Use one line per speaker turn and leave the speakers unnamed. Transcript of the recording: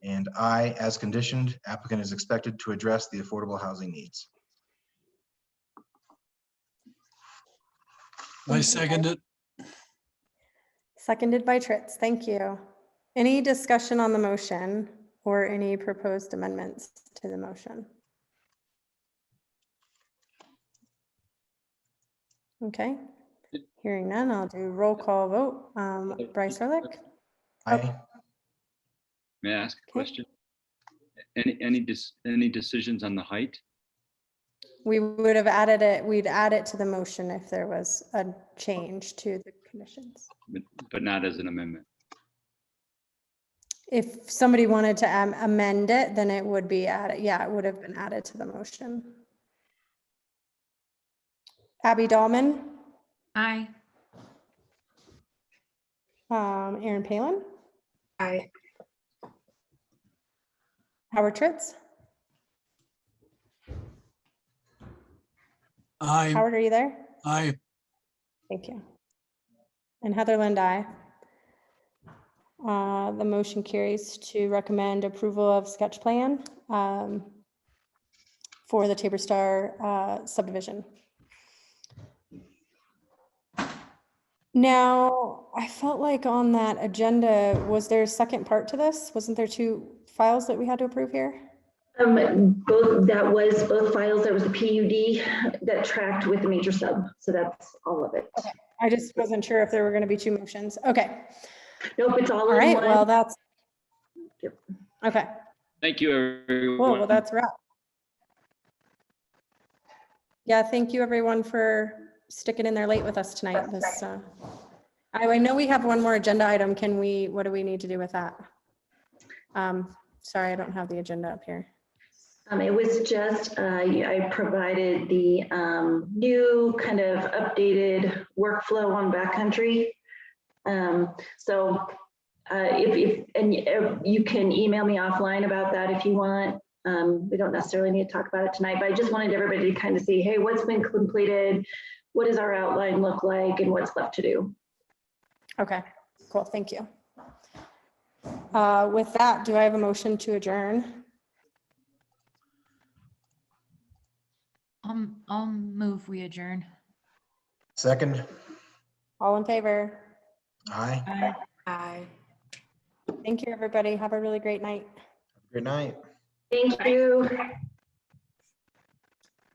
I, as conditioned, applicant is expected to address the affordable housing needs.
I second it.
Seconded by Tritz. Thank you. Any discussion on the motion or any proposed amendments to the motion? Okay, hearing none, I'll do roll call vote. Um, Bryce Rilic?
I,
May I ask a question? Any, any, dis- any decisions on the height?
We would have added it, we'd add it to the motion if there was a change to the conditions.
But- But not as an amendment.
If somebody wanted to am- amend it, then it would be added, yeah, it would have been added to the motion. Abby Dahlman,
Aye.
um, Aaron Palin,
Aye.
Howard Tritz.
I,
Howard, are you there?
I,
Thank you. And Heather Lind, aye. Uh, the motion carries to recommend approval of sketch plan, um, for the Tabor Star, uh, subdivision. Now, I felt like on that agenda, was there a second part to this? Wasn't there two files that we had to approve here?
Um, both, that was both files, there was the PUD that tracked with the major sub, so that's all of it.
I just wasn't sure if there were going to be two motions. Okay,
Nope, it's all
all
in
right, well,
one.
that's.
Yep.
Okay.
Thank you, everyone.
Cool, well, that's a wrap. Yeah, thank you everyone for sticking in there late with us tonight. This, uh, I I know we have one more agenda item. Can we, what do we need to do with that? Um, Sorry, I don't have the agenda up here.
Um, it was just, uh, I provided the, um, new kind of updated workflow on backcountry. Um, so, uh, if, if, and uh, you can email me offline about that if you want. Um, we don't necessarily need to talk about it tonight, but I just wanted everybody to kind of see, hey, what's been completed? What does our outline look like and what's left to do?
Okay, cool, thank you. Uh, With that, do I have a motion to adjourn?
I'll, I'll move, we adjourn.
second,
All in favor?
I,
Aye. Aye.
Thank you, everybody. Have a really great night.
good night.
Thank you.